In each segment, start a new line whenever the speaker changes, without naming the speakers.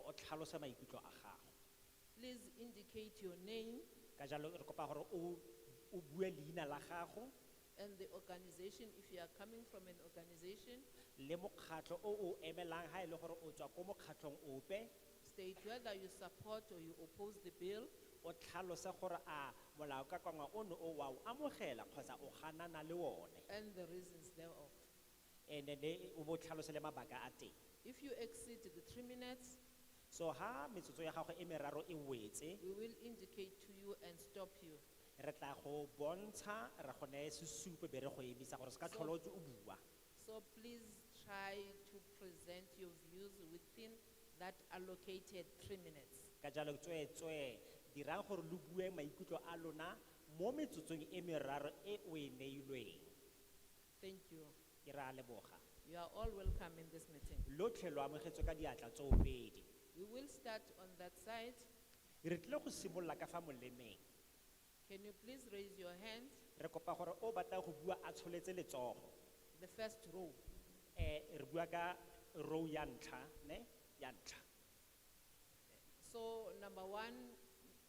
tlhalosa maikutlo a gago
Please indicate your name
ka jalo re kopa gore o o bue leina la gago
and the organization, if you are coming from an organization,
le mokgatlho o o emelang ha e le gore o tswa ko mokgatlhong ope
state whether you support or you oppose the bill,
o tlhalose gore a molaokakangwa ono o wa o amogela kgotsa o ganana le one
and the reasons thereof.
and then o bo o tlhalose le mabaka a teng
If you exceed the three minutes,
so ha metsotso ya gago e meraro e wetse
we will indicate to you and stop you.
re tla go bontsha re go neye sesupo be re go emisa gore se ka tlhole o ntse o bua
So please try to present your views within that allocated three minutes.
ka jalo tsweetswe dirang gore lo bue maikutlo a lona mo metsotsong e meraro e o e neilweng
Thank you.
ke re a leboga
You are all welcome in this meeting.
lotlhe lo amogetswe ka diatla tsoopedi
We will start on that side.
re tlile go simolola ka fa molemeng
Can you please raise your hand?
re kopa gore o batla go bua a tsholetse letsogo
The first row.
um re bua ka row ya ntlha ne ya ntlha
So number one,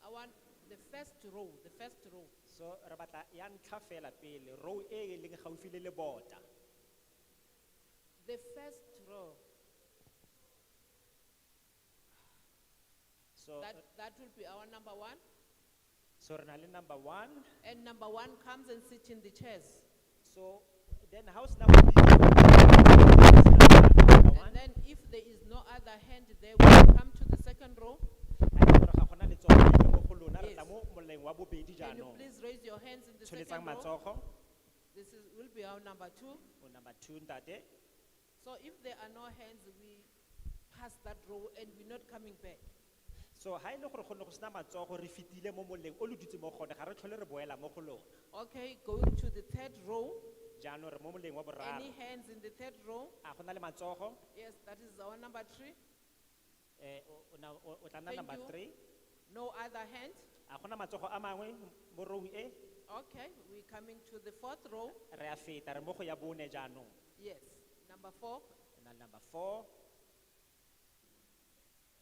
I want the first row, the first row.
so re batla ya ntlha fela pele row e e leng gaufi le lebota
The first row,
so
that, that will be our number one.
so re na le number one
And number one comes and sits in the chairs.
so then how sena go number one
And then if there is no other hand there, we will come to the second row.
a ke gore ga gona letsogo le mo go lona re
Yes.
tla mo moleng wa bobedi
Can you
jaanong
please raise your hands in the
tsholetsang
second row?
matsogo
This is, will be our number two.
o number two ntate
So if there are no hands, we pass that row and we're not coming back.
so ha e le gore go ne go sena matsogo re fetile mo moleng o le dutse mo gone ga re tlhole re boela mo go lona
Okay, going to the third row.
jaanong re mo moleng wa
Any
boraro
hands in the third row?
a go na le matsogo
Yes, that is our number three.
Eh, o- o na- o o tla nna
Thank
number
you.
three
No other hand?
a gona matsogo a mangwe mo rong e
Okay, we're coming to the fourth row.
re a feta re mo go ya bone jaanong
Yes, number four,
Re na le number four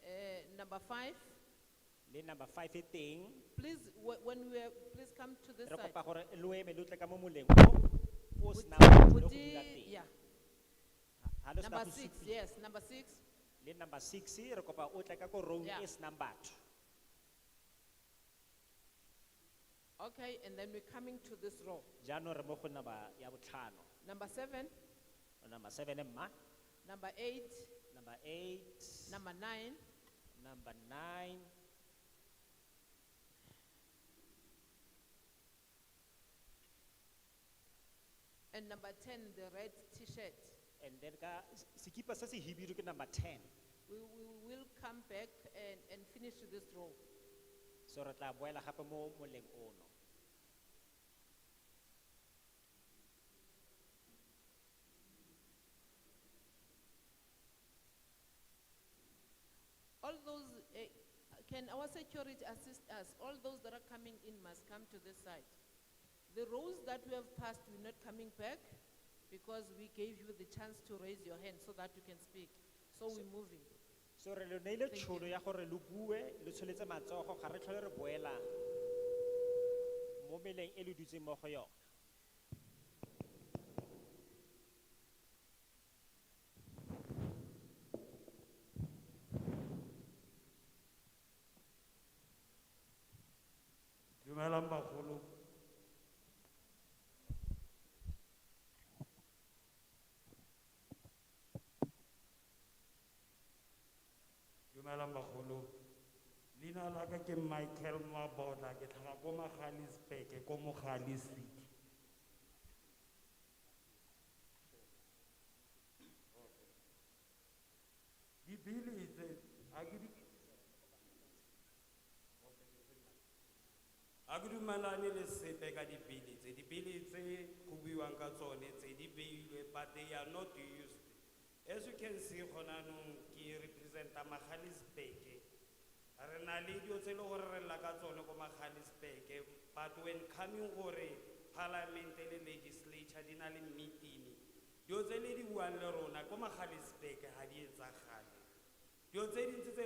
uh, number five.
le number five e teng
Please, wh- when we are, please come to this
re kopa
side.
gore lo eme lo tle ka mo moleng o o senang batho le go dula
Buti-
teng
yeah,
Ha le sena
number
go
six,
supiwa.
yes, number six.
le number six re kopa o tle ka ko row
Yeah.
e senang batho
Okay, and then we're coming to this row.
jaanong re mo go number ya botlhano
Number seven,
number seven e mma
number eight,
number eight
number nine,
number nine
and number ten, the red T-shirt.
and then ka s- sekipa se se hibidu ke number ten
We, we will come back and, and finish this row.
so re tla boela gape mo moleng ono
All those, eh, can our security assist us? All those that are coming in must come to this side. The rows that we have passed, we're not coming back because we gave you the chance to raise your hand so that you can speak. So we're moving.
so re lo neile
Thank
tšhono ya gore lo bue lo tsholetse matsogo ga re tlhole re boela mo meleng e le dutseng mo go yona
Dumelang bagolo. Dumelang bagolo. Leina la ka ke Michael Mabona ke tlhaga ko Magaliesburg ko Mogale City. Dibili tse a ke di a ke dumelane le sepe ka dibili tse dibili tse go buiwang ka tsone tse di beilwe but they are not used as you can see gona anong ke representa magalisbeke re na le dio tse e le gore re lla ka tsone ko magalisbeke but when coming gore parliamente le legislature di na le meeting dio tse e le di buang le rona ko magalisbeke ga di etsagale dio tse dintsi tse